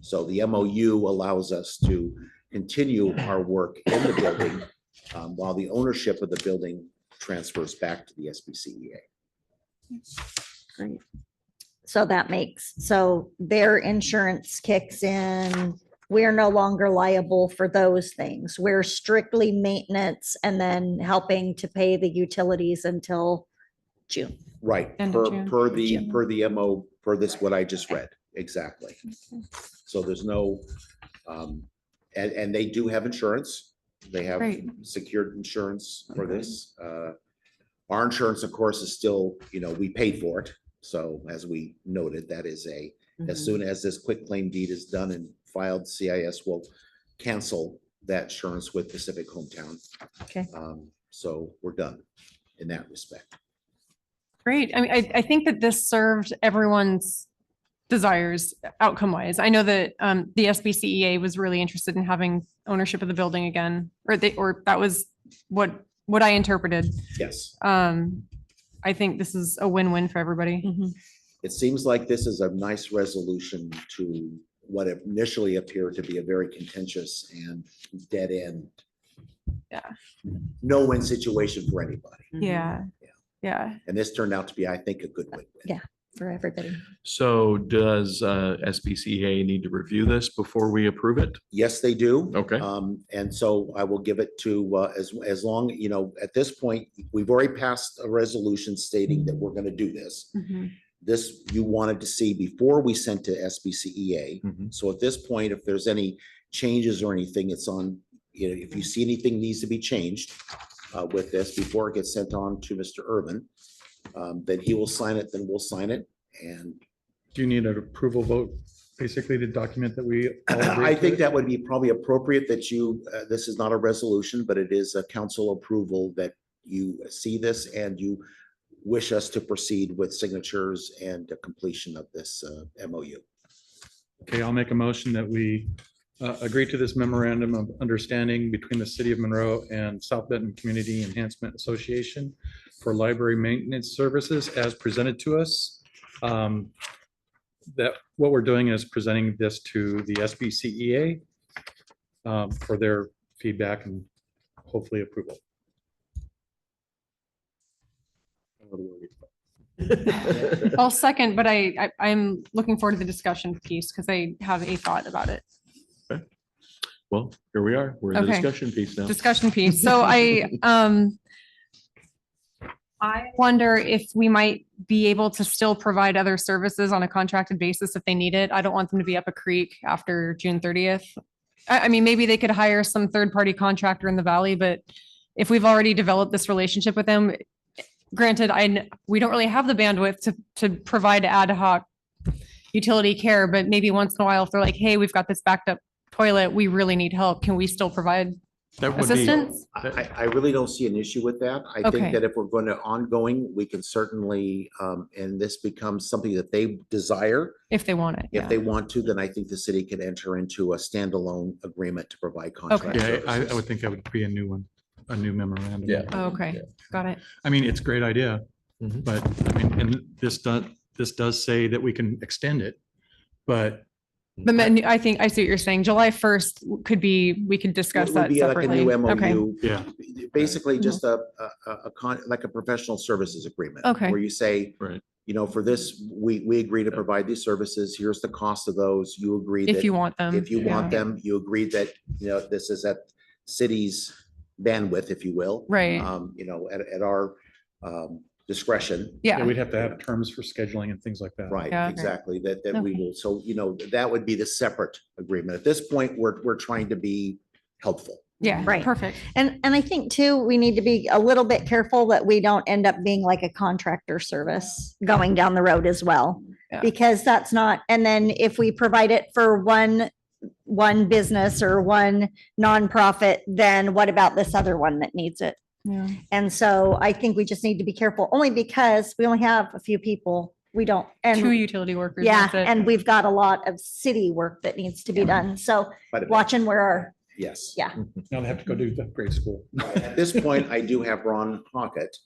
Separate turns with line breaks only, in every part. So the MOU allows us to continue our work in the building um, while the ownership of the building transfers back to the SBCEA.
Great. So that makes, so their insurance kicks in. We're no longer liable for those things. We're strictly maintenance and then helping to pay the utilities until June.
Right,
End of
per,
June.
per the,
June.
per the MO, per this, what I just read, exactly. So there's no, um, and, and they do have insurance. They have
Great.
secured insurance for this. Uh, Our insurance, of course, is still, you know, we paid for it. So as we noted, that is a, as
Mm-hmm.
soon as this quick claim deed is done and filed, CIS will cancel that insurance with Pacific Hometown.
Okay.
Um, So we're done in that respect.
Great. I mean, I, I think that this served everyone's desires outcome wise. I know that um, the SBCEA was really interested in having ownership of the building again, or they, or that was what, what I interpreted.
Yes,
Um, I think this is a win-win for everybody.
it seems like this is a nice resolution to what initially appeared to be a very contentious and dead end.
Yeah.
No win situation for anybody.
Yeah. Yeah.
And this turned out to be, I think, a good win.
Yeah. For everybody.
So does uh, SBCA need to review this before we approve it?
Yes, they do.
Okay.
Um, and so I will give it to, uh, as, as long, you know, at this point, we've already passed a resolution stating that we're gonna do this. This you wanted to see before we sent to SBCEA.
Mhm.
E So at this point, if there's any changes or anything, it's on, you know, if you see anything needs to be changed uh, with this before it gets sent on to Mr. Urban, um, then he will sign it, then we'll sign it. And
Do you need an approval vote, basically to document that we? all agree
I
to
think
it?
that would be probably appropriate that you, uh, this is not a resolution, but it is a council approval that you see this and you wish us to proceed with signatures and the completion of this uh, MOU.
Okay, I'll make a motion that we uh, agree to this memorandum of understanding between the city of Monroe and South Benton Community Enhancement Association for library maintenance services as presented to us. Um, That what we're doing is presenting this to the SBCEA E um, for their feedback and hopefully approval.
I'll second, but I, I, I'm looking forward to the discussion piece because I have a thought about it.
Well, here we are. We're in the
Okay.
discussion piece now.
discussion piece. So I, um, I wonder if we might be able to still provide other services on a contracted basis if they need it. I don't want them to be up a creek after June thirtieth. I, I mean, maybe they could hire some third-party contractor in the valley, but if we've already developed this relationship with them, granted, I, kn- we don't really have the bandwidth to, to provide ad hoc utility care, but maybe once in a while, if they're like, hey, we've got this backed up toilet, we really need help. Can we still provide
That would be,
assistance?
I, I- I really don't see an issue with that. I think
Okay.
that if we're going to ongoing, we can certainly, um, and this becomes something that they desire.
If they want it.
If
Yeah.
they want to, then I think the city could enter into a standalone agreement to provide contract
Yeah, I, I
services.
would think that would be a new one, a new memorandum.
Yeah.
Oh, Okay, got it.
I mean, it's a great idea,
Mhm.
but I mean, and this does, this does say that we can extend it. But
The
Mm-hmm.
menu, I think, I see what you're saying. July first could be, we could discuss
It would
that
be like a
separately.
new
Okay,
MOU,
yeah,
Basically just a, a, a- a con, like a professional services agreement.
Mm-hmm. Okay.
Where you say.
Right.
You know, for this, we, we agree to provide these services. Here's the cost of those. You agree that.
If you want them.
If you want
yeah.
them, you agree that, you know, this is at city's bandwidth, if you will.
Right,
Um, you know, at, at our, um, discretion.
yeah,
yeah,
we'd have to have terms for scheduling and things like that.
Right,
Yeah.
exactly, that, that we
Okay.
will, so, you know, that would be the separate agreement. At this point, we're, we're trying to be helpful.
yeah,
Right.
perfect.
And, and I think too, we need to be a little bit careful that we don't end up being like a contractor service going down the road as well.
Yeah.
Because that's not, and then if we provide it for one, one business or one nonprofit, then what about this other one that needs it?
Yeah.
And so I think we just need to be careful, only because we only have a few people. We don't,
Two
and
utility workers.
yeah,
that's it.
and we've got a lot of city work that needs to be done. So
quite a bit.
watching where our
Yes.
Yeah.
Now they have to go do the grade school.
At this point, I do have Ron Hockett,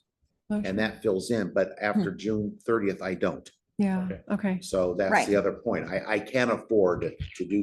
Okay.
and that fills in, but after June thirtieth, I don't.
Yeah,
Okay.
okay.
So that's
Right.
the other point. I, I can't afford to do